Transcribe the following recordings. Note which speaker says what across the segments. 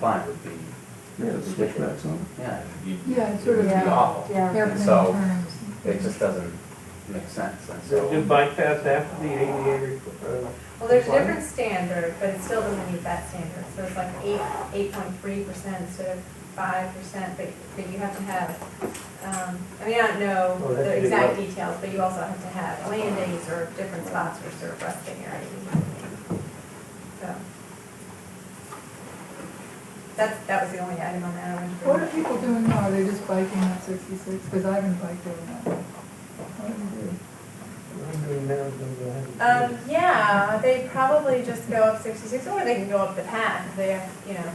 Speaker 1: fund would be,
Speaker 2: Yeah, the switchbacks on.
Speaker 1: yeah, you-
Speaker 3: Yeah, it's
Speaker 1: it would be
Speaker 3: sort of-
Speaker 1: awful.
Speaker 4: Yeah.
Speaker 3: Airplane
Speaker 1: So-
Speaker 3: terms.
Speaker 1: It just doesn't make sense, and so.
Speaker 5: Do bypass after the ADA, requ- uh,
Speaker 4: Well, there's a different standard, but it still doesn't meet that standard, so it's like eight, eight point three percent instead of five percent, but, but you have to have, um, I mean, I don't know
Speaker 5: Oh, that's
Speaker 4: the
Speaker 5: pretty
Speaker 4: exact details, but you also have to have land days or different spots for sort of resting areas. and everything. So. That's, that was the only item on that. I wanted to bring
Speaker 3: What
Speaker 4: up.
Speaker 3: are people doing now? Are they just biking up sixty-six? Because I haven't biked over that. What do they do?
Speaker 5: I'm doing now, I'm doing behind.
Speaker 4: Um, yeah, they probably just go up sixty-six, or they can go up the path, if they, have- you know,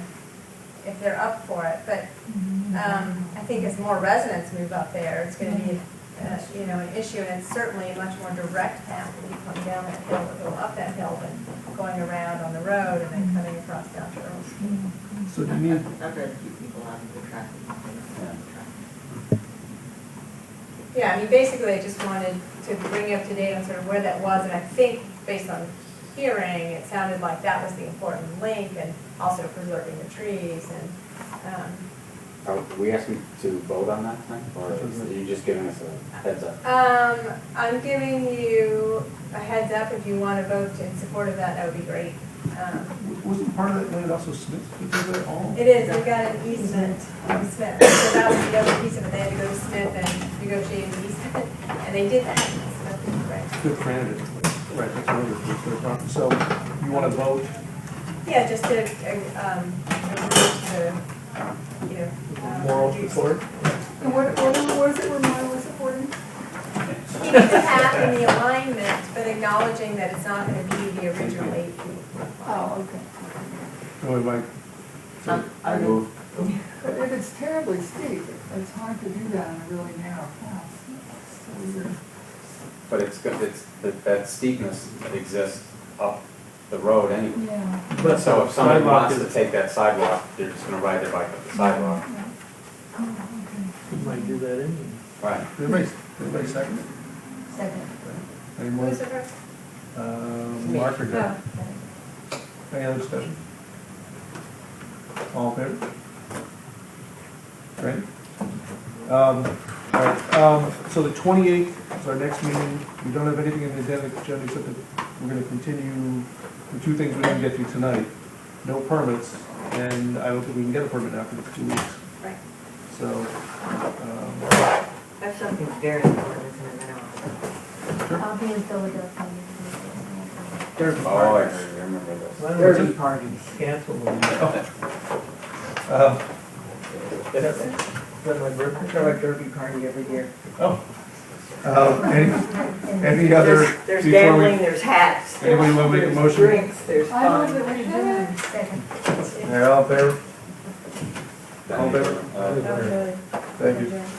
Speaker 4: if they're up for it, but
Speaker 3: Mm-hmm.
Speaker 4: Um, I think as more residents move up there, it's gonna be, uh, you know, an issue, and it's certainly a much more direct path if you come down that hill, or go up that hill, than going around on the road and then coming across down Charles.
Speaker 2: So do you need,
Speaker 6: Not to keep people out of the traffic. but they don't have traffic.
Speaker 4: Yeah, I mean, basically, I just wanted to bring you up to date on sort of where that was, and I think, based on hearing, it sounded like that was the important link, and also preserving the trees, and, um,
Speaker 1: Are we asking to vote on that thing, or are you just giving us a heads up?
Speaker 4: Um, I'm giving you a heads up, if you want to vote in support of that, that would be great. Um,
Speaker 2: wasn't part of that land also Smith, because they're all?
Speaker 4: It is, we've got an easement from Smith, so that was the other piece of it, they had to go to Smith and negotiate an easement, and they did that. So, right.
Speaker 2: Good candidate. Right, that's wonderful, it's their property. So you want to vote?
Speaker 4: Yeah, just to, uh, um, to, you know. um,
Speaker 5: Moral
Speaker 4: reduce-
Speaker 5: support?
Speaker 3: And what, what was it where Maya was supporting?
Speaker 4: Keep the path and the alignment, but acknowledging that it's not going to be the original eight feet.
Speaker 3: Oh, okay.
Speaker 2: Or like, so
Speaker 6: Um,
Speaker 2: I
Speaker 6: I
Speaker 2: move,
Speaker 3: But if it's terribly steep, it's hard to do that on a really narrow path. So you're-
Speaker 1: But it's, good- it's, that- that steepness that exists up the road anyway.
Speaker 3: Yeah.
Speaker 5: But
Speaker 1: So if somebody
Speaker 5: sidewalk
Speaker 1: wants to
Speaker 5: is-
Speaker 1: take that sidewalk, they're just gonna ride their bike up the sidewalk.
Speaker 3: Yeah. Oh, okay.
Speaker 5: You Might do that anyway.
Speaker 1: Right.
Speaker 2: everybody, everybody second it?
Speaker 4: Second.
Speaker 2: Any
Speaker 4: Who
Speaker 2: more,
Speaker 4: was the first?
Speaker 2: uh, Mark or Doug?
Speaker 4: Oh.
Speaker 2: Any other discussion? All in favor? Great. Um, all right, um, so the twenty-eighth is our next meeting. We don't have anything in the agenda, agenda except that we're gonna continue the two things we didn't get to tonight. No permits, and I don't think we can get a permit after the two weeks,
Speaker 4: Right.
Speaker 2: so, um,
Speaker 6: That's something very important, isn't it, that I want to-
Speaker 7: I'll be in Philadelphia. next
Speaker 5: There's
Speaker 1: Oh, I remember this.
Speaker 5: Dirty parties. Cancel them.
Speaker 2: uh,
Speaker 6: That's When my birthday, throw a derby party every year.
Speaker 2: oh. Uh, any,
Speaker 7: week.
Speaker 2: any other?
Speaker 6: There's-
Speaker 2: before
Speaker 6: There's
Speaker 2: we-
Speaker 6: gambling, there's hats, there's
Speaker 2: Anybody wanna make a
Speaker 6: there's
Speaker 2: motion?
Speaker 6: drinks, there's
Speaker 3: I move
Speaker 6: fun.
Speaker 3: that we adjourn.
Speaker 7: Second.
Speaker 2: Yeah, all in favor?
Speaker 1: All
Speaker 2: in favor?
Speaker 1: Uh,
Speaker 4: That was really-
Speaker 2: Thank you.
Speaker 7: Adjourn.